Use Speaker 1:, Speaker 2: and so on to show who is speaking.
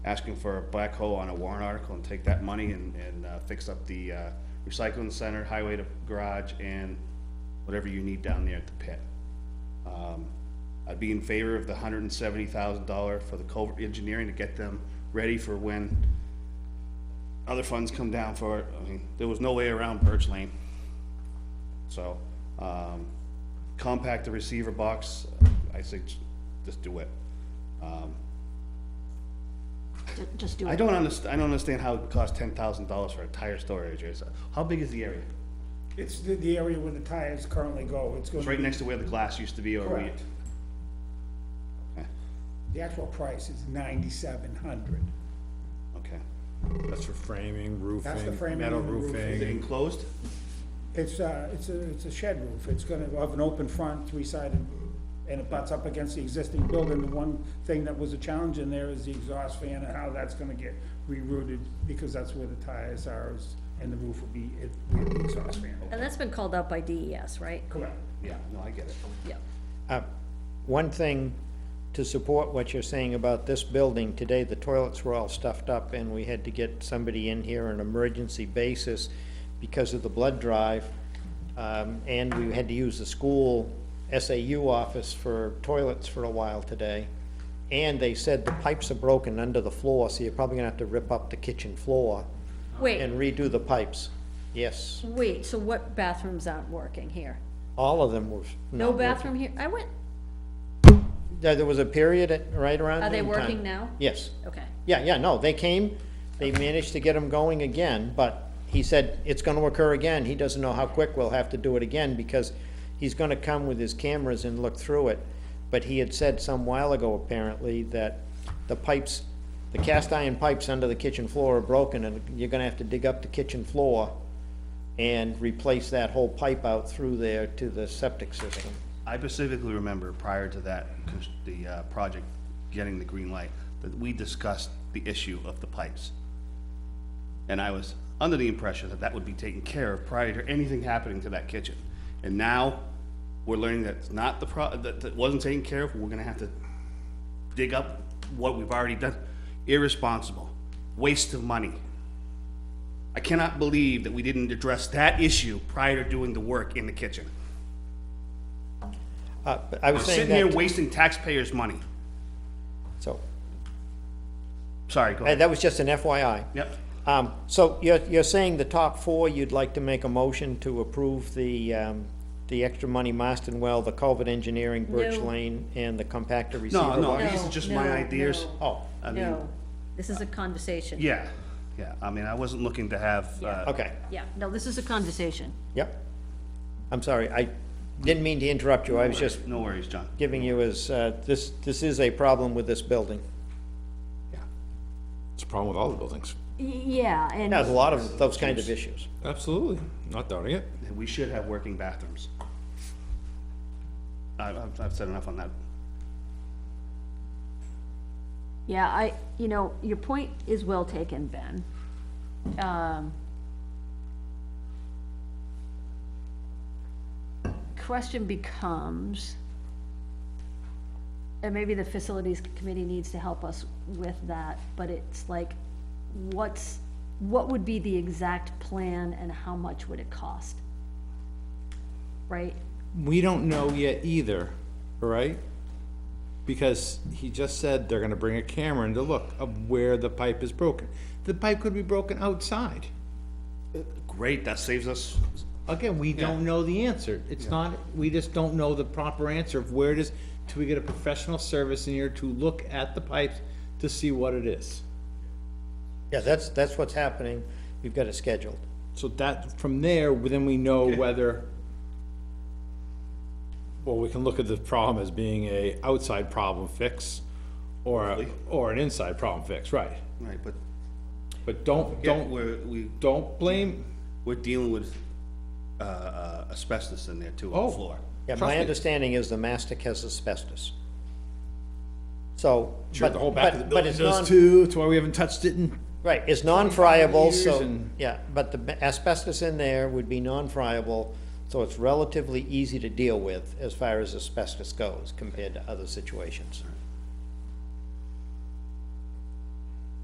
Speaker 1: asking for a black hole on a warrant article and take that money and, and uh, fix up the uh, recycling center, highway to garage, and whatever you need down there at the pit. Um, I'd be in favor of the hundred and seventy thousand dollar for the culvert engineering to get them ready for when other funds come down for it. I mean, there was no way around Birch Lane. So, um, compact the receiver box, I say, j- just do it.
Speaker 2: Ju- Just do
Speaker 1: I
Speaker 2: it.
Speaker 1: don't underst, I don't understand how it costs ten thousand dollars for a tire storage, It's- uh, how big is the area?
Speaker 3: It's the, the area where the tires currently go, it's
Speaker 1: It's right
Speaker 3: gonna be,
Speaker 1: next to where the glass used to be, or we,
Speaker 3: Correct. the actual price is ninety-seven hundred.
Speaker 1: okay.
Speaker 4: That's for framing,
Speaker 3: That's the
Speaker 4: roofing,
Speaker 3: framing
Speaker 4: metal
Speaker 3: and the roofing.
Speaker 1: Is it
Speaker 4: roofing.
Speaker 1: enclosed?
Speaker 3: It's a, it's a, it's a shed roof, it's gonna have an open front, three-sided, and it butts up against the existing building. The one thing that was a challenge in there is the exhaust fan and how that's gonna get rerouted, because that's where the tires are, is- and the roof will be, it, where the exhaust fan. will be.
Speaker 2: And that's been called out by DES, right?
Speaker 3: Correct.
Speaker 1: Yeah, no, I get it.
Speaker 2: Yeah.
Speaker 5: Uh, One thing to support what you're saying about this building, today the toilets were all stuffed up and we had to get somebody in here on an emergency basis because of the blood drive. Um, and we had to use the school SAU office for toilets for a while today. And they said the pipes are broken under the floor, so you're probably gonna have to rip up the kitchen floor and
Speaker 2: Wait,
Speaker 5: redo the pipes. Yes,
Speaker 2: wait, so what bathrooms aren't working here?
Speaker 5: all of them were.
Speaker 2: No
Speaker 5: not working.
Speaker 2: bathroom here? I went,
Speaker 5: There, there was a period at, right around
Speaker 2: are they
Speaker 5: noon time.
Speaker 2: working now?
Speaker 5: Yes.
Speaker 2: Okay,
Speaker 5: Yeah, yeah, no, they came, they managed to get them going again, but he said it's gonna occur again. He doesn't know how quick we'll have to do it again because he's gonna come with his cameras and look through it. But he had said some while ago apparently that the pipes, the cast iron pipes under the kitchen floor are broken and you're gonna have to dig up the kitchen floor and replace that whole pipe out through there to the septic system.
Speaker 1: I specifically remember prior to that, cons- the uh, project getting the green light, that we discussed the issue of the pipes. And I was under the impression that that would be taken care of prior to anything happening to that kitchen. And now, we're learning that it's not the pro, that, that wasn't taken care of, we're gonna have to dig up what we've already done. Irresponsible, waste of money. I cannot believe that we didn't address that issue prior to doing the work in the kitchen.
Speaker 5: Uh, but I was
Speaker 1: We're
Speaker 5: saying
Speaker 1: sitting here
Speaker 5: that,
Speaker 1: wasting taxpayers' money.
Speaker 5: so,
Speaker 1: Sorry, go
Speaker 5: uh,
Speaker 1: ahead.
Speaker 5: that was just an FYI.
Speaker 1: Yep.
Speaker 5: Um, so you're, you're saying the top four, you'd like to make a motion to approve the, um, the extra money Marston Well, the culvert engineering, Birch
Speaker 2: No.
Speaker 5: Lane, and the compactor receiver?
Speaker 1: No, no,
Speaker 5: box?
Speaker 1: these are just my
Speaker 2: No, no,
Speaker 1: ideas.
Speaker 2: no.
Speaker 5: Oh,
Speaker 1: I mean,
Speaker 2: no, this is a conversation.
Speaker 1: yeah, yeah. I mean, I wasn't looking to have, uh,
Speaker 5: okay,
Speaker 2: Yeah, no, this is a conversation.
Speaker 5: yep. I'm sorry, I didn't mean to interrupt you, I was just
Speaker 1: no worries, John.
Speaker 5: giving you as, uh, this, this is a problem with this building.
Speaker 1: Yeah.
Speaker 4: It's a problem with all the buildings.
Speaker 2: Y- Yeah, and.
Speaker 5: It has a lot of those kind of issues.
Speaker 4: Absolutely, not doubting it.
Speaker 1: And we should have working bathrooms. I- I've, I've said enough on that.
Speaker 2: Yeah, I, you know, your point is well taken, Ben. Um, Question becomes, and maybe the facilities committee needs to help us with that, but it's like, what's, what would be the exact plan and how much would it cost? Right?
Speaker 6: We don't know yet either, right? Because he just said they're gonna bring a camera in to look of where the pipe is broken. The pipe could be broken outside.
Speaker 1: Great, that saves us.
Speaker 6: Again, we don't know the answer. It's not, we just don't know the proper answer of where it is till we get a professional service in here to look at the pipes to see what it is.
Speaker 5: Yeah, that's, that's what's happening, we've got it scheduled.
Speaker 6: So that, from there, then we know whether,
Speaker 4: Well, we can look at the problem as being a outside problem fix or, a- or an inside problem fix, right?
Speaker 1: Right, but
Speaker 4: But
Speaker 1: don't,
Speaker 4: don't, don't,
Speaker 1: we're, we,
Speaker 4: don't blame,
Speaker 1: we're dealing with, uh, uh, asbestos in there too, on the
Speaker 4: Oh.
Speaker 1: floor.
Speaker 5: Yeah,
Speaker 4: Trust
Speaker 5: my
Speaker 4: me.
Speaker 5: understanding is the mastic has asbestos. So,
Speaker 4: sure,
Speaker 5: but,
Speaker 4: the whole back of the
Speaker 5: but, but
Speaker 4: building
Speaker 5: it's
Speaker 4: does
Speaker 5: non,
Speaker 4: too, that's why we haven't touched it in
Speaker 5: Right, it's non-friable,
Speaker 6: years
Speaker 5: so,
Speaker 6: and-
Speaker 5: yeah, but the asbestos in there would be non-friable, so it's relatively easy to deal with as far as asbestos goes compared to other situations.